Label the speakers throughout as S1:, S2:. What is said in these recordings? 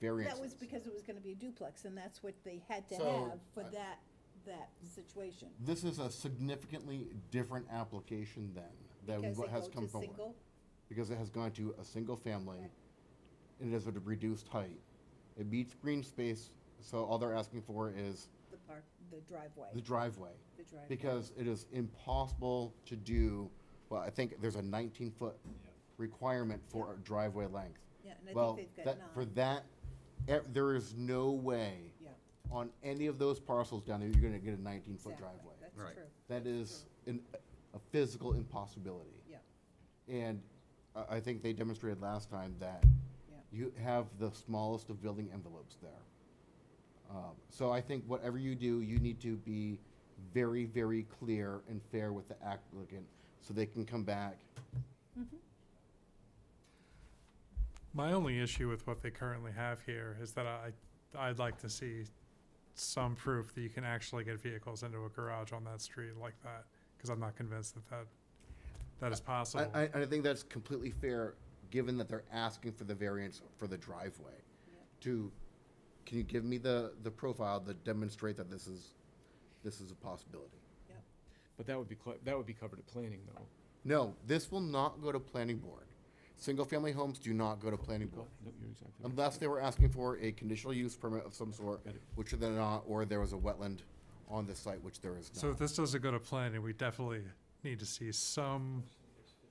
S1: variances.
S2: That was because it was gonna be a duplex, and that's what they had to
S1: So,
S2: have for
S1: I-
S2: that, that situation.
S1: This is a significantly different application than, than
S2: Because they
S1: what has
S2: go
S1: come
S2: to
S1: forward.
S2: single?
S1: Because it has gone to a single family,
S2: Right.
S1: and it is at a reduced height. It meets green space, so all they're asking for is
S2: The park, the driveway,
S1: the driveway.
S2: the driveway.
S1: Because it is impossible to do, well, I think there's a nineteen-foot requirement for a driveway length.
S2: Yeah, and I
S1: Well,
S2: think they've got
S1: that, for
S2: nine.
S1: that, eh, there is no way
S2: Yeah,
S1: on any of those parcels down there, you're gonna get a nineteen-foot
S2: exactly,
S1: driveway.
S2: that's
S3: Right.
S2: true,
S1: That is an, a physical impossibility.
S2: yeah,
S1: And I, I think they demonstrated last time that
S2: yeah.
S1: you have the smallest of building envelopes there. Um, so I think whatever you do, you need to be very, very clear and fair with the applicant so they can come back.
S4: My only issue with what they currently have here is that I, I'd like to see some proof that you can actually get vehicles into a garage on that street like that, because I'm not convinced that that, that is possible.
S1: I, I, I think that's completely fair, given that they're asking for the variance for the driveway. To, can you give me the, the profile that demonstrate that this is, this is a possibility?
S3: But that would be, cl- that would be covered at planning, though.
S1: No, this will not go to planning board. Single-family homes do not go to planning board.
S3: Nope, you're exactly right.
S1: Unless they were asking for a conditional use permit of some sort,
S3: Got it.
S1: which they're not, or there was a wetland on the site, which there is
S4: So if
S1: not.
S4: this doesn't go to planning, we definitely need to see some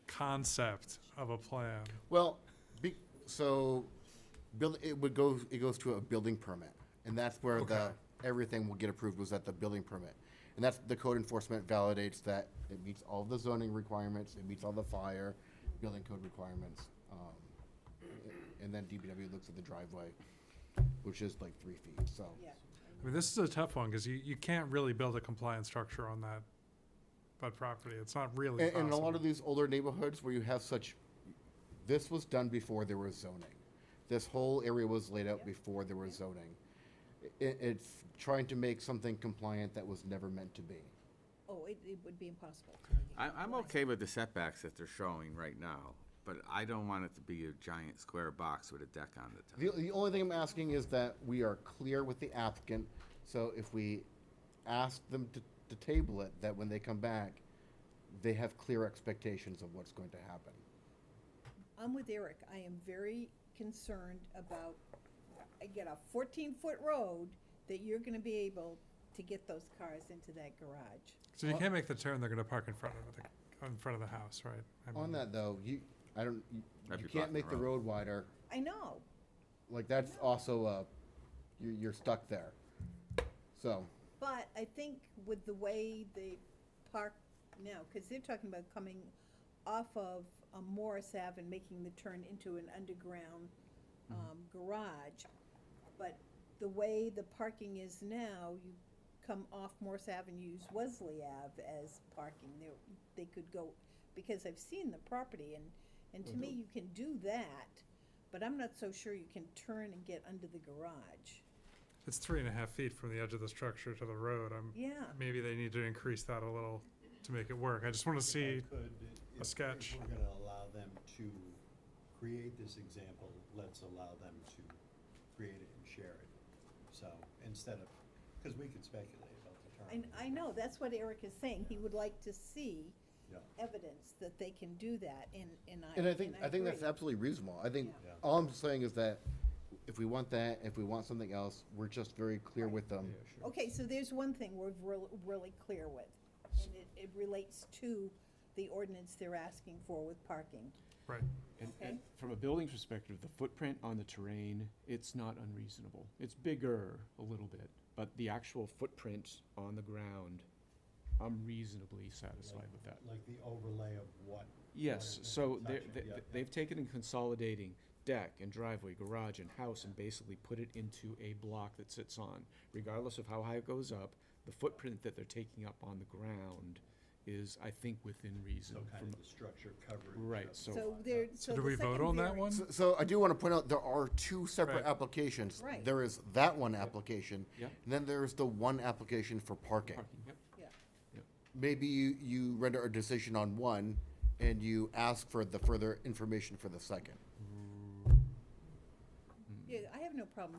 S4: concept of a plan.
S1: Well, be, so, build, it would go, it goes to a building permit, and that's where the,
S4: Okay.
S1: everything will get approved was at the building permit. And that's, the code enforcement validates that it meets all the zoning requirements, it meets all the fire, building code requirements. um, And then DPW looks at the driveway, which is like three feet, so.
S2: Yeah,
S4: I mean, this is a tough one, because you, you can't really build a compliance structure on that, that property. It's not really
S1: And, and a lot of
S4: possible.
S1: these older neighborhoods where you have such, this was done before there was zoning. This whole area was laid out
S2: Yeah.
S1: before there was zoning. It, it's trying to make something compliant that was never meant to be.
S2: oh, it, it would be impossible.
S5: I, I'm okay with the setbacks that they're showing right now, but I don't want it to be a giant square box with a deck on the
S1: The,
S5: top.
S1: the only thing I'm asking is that we are clear with the applicant, so if we ask them to, to table it, that when they come back, they have clear expectations of what's going to happen.
S2: I'm with Eric, I am very concerned about, I get a fourteen-foot road, that you're gonna be able to get those cars into that garage.
S4: So if you can't make the turn, they're gonna park in front of the, in front of the house, right? I
S1: On
S4: mean-
S1: that though, you, I don't, you-
S5: That'd
S1: you
S5: be
S1: can't
S5: blocking
S1: make the
S5: the road.
S1: road wider,
S2: I know,
S1: Like that's also uh, you're, you're stuck there. So
S2: But I think with the way they park now, because they're talking about coming off of um, Morris Ave and making the turn into an underground um, garage. But the way the parking is now, you come off Morris Ave and use Wesley Ave as parking. They, they could go, because I've seen the property and, and to me, you can do that, but I'm not so sure you can turn and get under the garage.
S4: It's three and a half feet from the edge of the structure to the road. I'm,
S2: Yeah.
S4: maybe they need to increase that a little to make it work. I just want to see,
S6: could, if-
S4: sketch.
S6: If we're gonna allow them to create this example, let's allow them to create it and share it. So, instead of, because we could speculate about the term.
S2: And I know, that's what Eric is saying, he would like to see
S6: Yeah.
S2: evidence that they can do that, and, and I,
S1: and I think I, think
S2: agree.
S1: that's absolutely reasonable. I think
S6: Yeah. Yeah.
S1: all I'm saying is that if we want that, if we want something else, we're just very clear with them.
S2: Okay, so there's one thing we're real, really clear with, and it, it relates to the ordinance they're asking for with parking.
S4: right,
S3: And,
S2: Okay.
S3: and from a building perspective, the footprint on the terrain, it's not unreasonable. It's bigger a little bit, but the actual footprint on the ground, I'm reasonably satisfied with that.
S6: Like the overlay of what.
S3: Yes,
S6: what is
S3: so they're,
S6: touching.
S3: they-
S6: Yeah,
S3: they-
S6: yeah.
S3: they've taken and consolidating deck and driveway, garage and house and basically put it into a block that sits on. Regardless of how high it goes up, the footprint that they're taking up on the ground is, I think, within reason.
S6: So kind
S3: from-
S6: of the structure coverage.
S3: Right,
S6: of-
S3: so-
S2: So there, so
S4: So do
S2: the
S4: we vote
S2: second
S4: on that
S2: vari-
S4: one?
S1: So, so I do want to point out there are two separate
S4: Right.
S1: applications.
S2: Right.
S1: There is that one application,
S3: Yeah.
S1: and then there's the one application for parking.
S3: Parking, yep.
S2: Yeah,
S1: Maybe you, you render a decision on one, and you ask for the further information for the second.
S3: Mm,
S2: Yeah, I have no problem